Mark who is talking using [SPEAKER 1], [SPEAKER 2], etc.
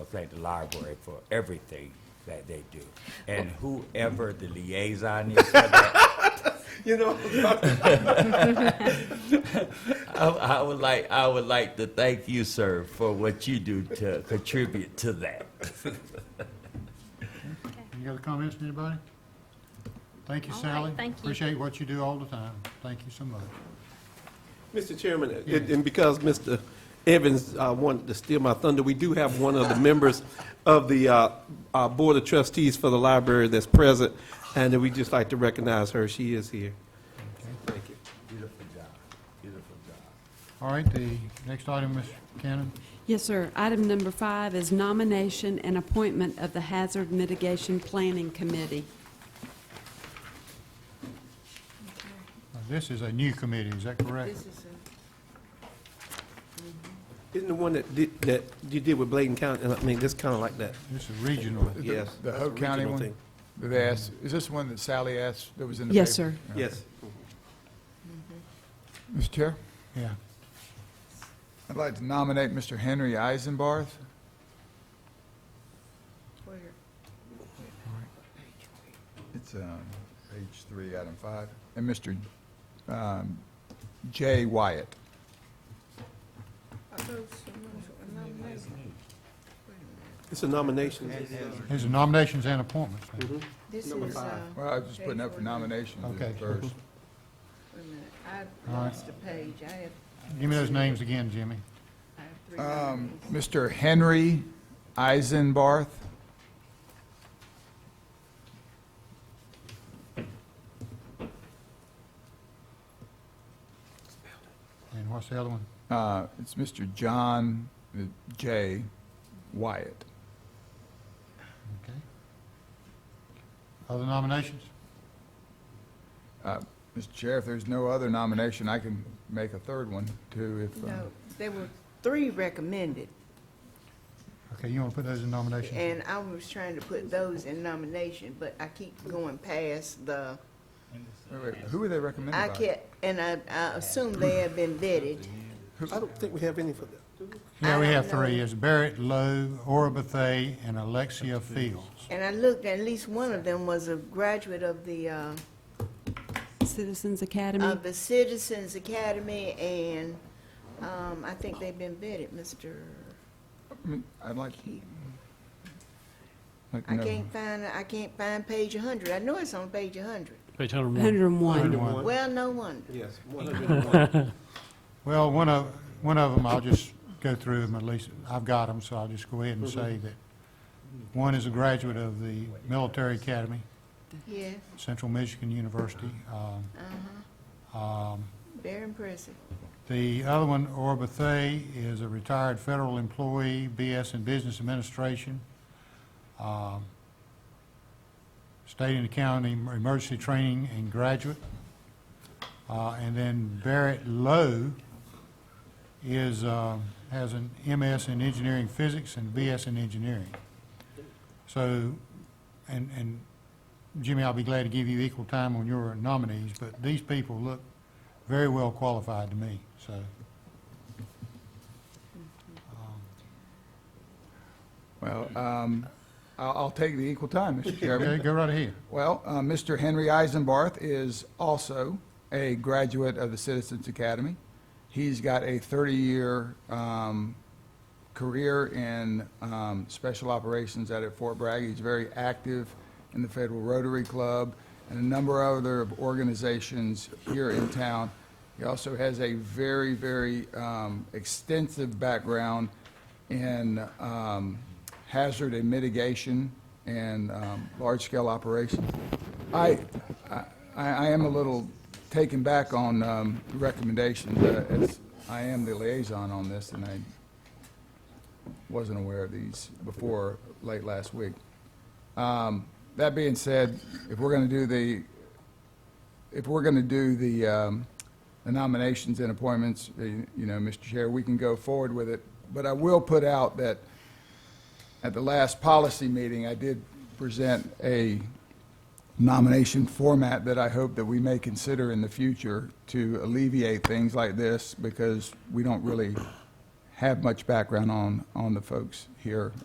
[SPEAKER 1] thank the library for everything that they do. And whoever the liaison is, for that,
[SPEAKER 2] You know,
[SPEAKER 1] I, I would like, I would like to thank you, sir, for what you do to contribute to that.
[SPEAKER 3] Any other comments, anybody? Thank you,
[SPEAKER 4] All right,
[SPEAKER 3] Sally.
[SPEAKER 4] thank you.
[SPEAKER 3] Appreciate what you do all the time. Thank you so much.
[SPEAKER 2] Mr. Chairman, and and because Mr. Evans uh, wanted to steal my thunder, we do have one of the members of the uh, uh, Board of Trustees for the library that's present, and we just like to recognize her. She is here. Thank you.
[SPEAKER 1] Beautiful job, beautiful job.
[SPEAKER 3] All right, the next item, Ms. Cannon.
[SPEAKER 5] Yes, sir. Item number five is nomination and appointment of the Hazard Mitigation Planning Committee.
[SPEAKER 3] Now, This is a new committee, is that correct?
[SPEAKER 6] This is a,
[SPEAKER 2] Isn't the one that did, that you did with Bladen County, I mean, that's kind of like that.
[SPEAKER 3] This is regional.
[SPEAKER 7] The-
[SPEAKER 2] Yes,
[SPEAKER 7] The
[SPEAKER 2] that's
[SPEAKER 7] Hope County
[SPEAKER 2] regional
[SPEAKER 7] one?
[SPEAKER 2] thing.
[SPEAKER 7] that They asked, is this one that Sally asked that was in the paper?
[SPEAKER 5] Yes, sir.
[SPEAKER 2] Yes.
[SPEAKER 7] Mr. Chair,
[SPEAKER 3] Yeah.
[SPEAKER 7] I'd like to nominate Mr. Henry Eisenbarth.
[SPEAKER 6] where,
[SPEAKER 7] It's um, page three, item five. And Mr. um, Jay Wyatt.
[SPEAKER 6] I thought someone was nominated. Wait a
[SPEAKER 2] It's a nomination.
[SPEAKER 3] These are nominations and appointments. then.
[SPEAKER 6] minute. This
[SPEAKER 2] Number
[SPEAKER 6] is, uh,
[SPEAKER 2] five.
[SPEAKER 7] Well, I was just putting up for nominations
[SPEAKER 3] Okay.
[SPEAKER 7] first.
[SPEAKER 6] wait a minute, I
[SPEAKER 3] All right.
[SPEAKER 6] lost a page, I have,
[SPEAKER 3] Give me those names again, Jimmy.
[SPEAKER 6] I have three
[SPEAKER 7] Um,
[SPEAKER 6] nominees.
[SPEAKER 7] Mr. Henry Eisenbarth,
[SPEAKER 3] And what's the other one?
[SPEAKER 7] uh, it's Mr. John uh, J. Wyatt.
[SPEAKER 3] Okay. Other nominations?
[SPEAKER 7] Uh, Mr. Chair, if there's no other nomination, I can make a third one, too, if, uh,
[SPEAKER 6] No, there were three recommended,
[SPEAKER 3] Okay, you want to put those in nomination?
[SPEAKER 6] and I was trying to put those in nomination, but I keep going past the,
[SPEAKER 7] wait, wait, who were they recommended by?
[SPEAKER 6] I kept, and I, I assume they have been vetted.
[SPEAKER 2] I don't think we have any for that.
[SPEAKER 3] Yeah, we
[SPEAKER 6] I
[SPEAKER 3] have
[SPEAKER 6] don't
[SPEAKER 3] three.
[SPEAKER 6] know.
[SPEAKER 3] It's Barrett Lowe, Ora Bethay, and Alexia Fields.
[SPEAKER 6] And I looked, at least one of them was a graduate of the, uh,
[SPEAKER 5] Citizens Academy.
[SPEAKER 6] of the Citizens Academy, and, um, I think they've been vetted, Mr.
[SPEAKER 7] I mean, I'd like, like to
[SPEAKER 6] I
[SPEAKER 7] know-
[SPEAKER 6] can't find, I can't find page hundred. I know it's on page hundred.
[SPEAKER 8] Page 101.
[SPEAKER 3] 101.
[SPEAKER 5] 101.
[SPEAKER 6] Well, no wonder.
[SPEAKER 2] Yes, 101.
[SPEAKER 3] Well, one of, one of them, I'll just go through them, at least, I've got them, so I'll just go ahead and say that one is a graduate of the Military Academy,
[SPEAKER 6] Yeah,
[SPEAKER 3] Central Michigan University. Um, um,
[SPEAKER 6] very impressive.
[SPEAKER 3] The other one, Ora Bethay, is a retired federal employee, BS in Business Administration, um, State and County Emergency Training and graduate. Uh, And then Barrett Lowe is, um, has an MS in Engineering Physics and BS in Engineering. So, and, and Jimmy, I'll be glad to give you equal time on your nominees, but these people look very well qualified to me, so.
[SPEAKER 7] Well, um, I'll, I'll take the equal time, Mr.
[SPEAKER 3] Okay,
[SPEAKER 7] Chairman.
[SPEAKER 3] go right ahead.
[SPEAKER 7] Well, uh, Mr. Henry Eisenbarth is also a graduate of the Citizens Academy. He's got a 30-year um, career in um, special operations out at Fort Bragg. He's very active in the Federal Rotary Club and a number of other organizations here in town. He also has a very, very um, extensive background in um, hazard and mitigation and um, large-scale operations. I, I, I am a little taken back on um, recommendations. uh, as I am the liaison on this, and I wasn't aware of these before late last week. Um, That being said, if we're going to do the, if we're going to do the um, the nominations and appointments, uh, you know, Mr. Chair, we can go forward with it. But I will put out that at the last policy meeting, I did present a nomination format that I hope that we may consider in the future to alleviate things like this because we don't really have much background on, on the folks here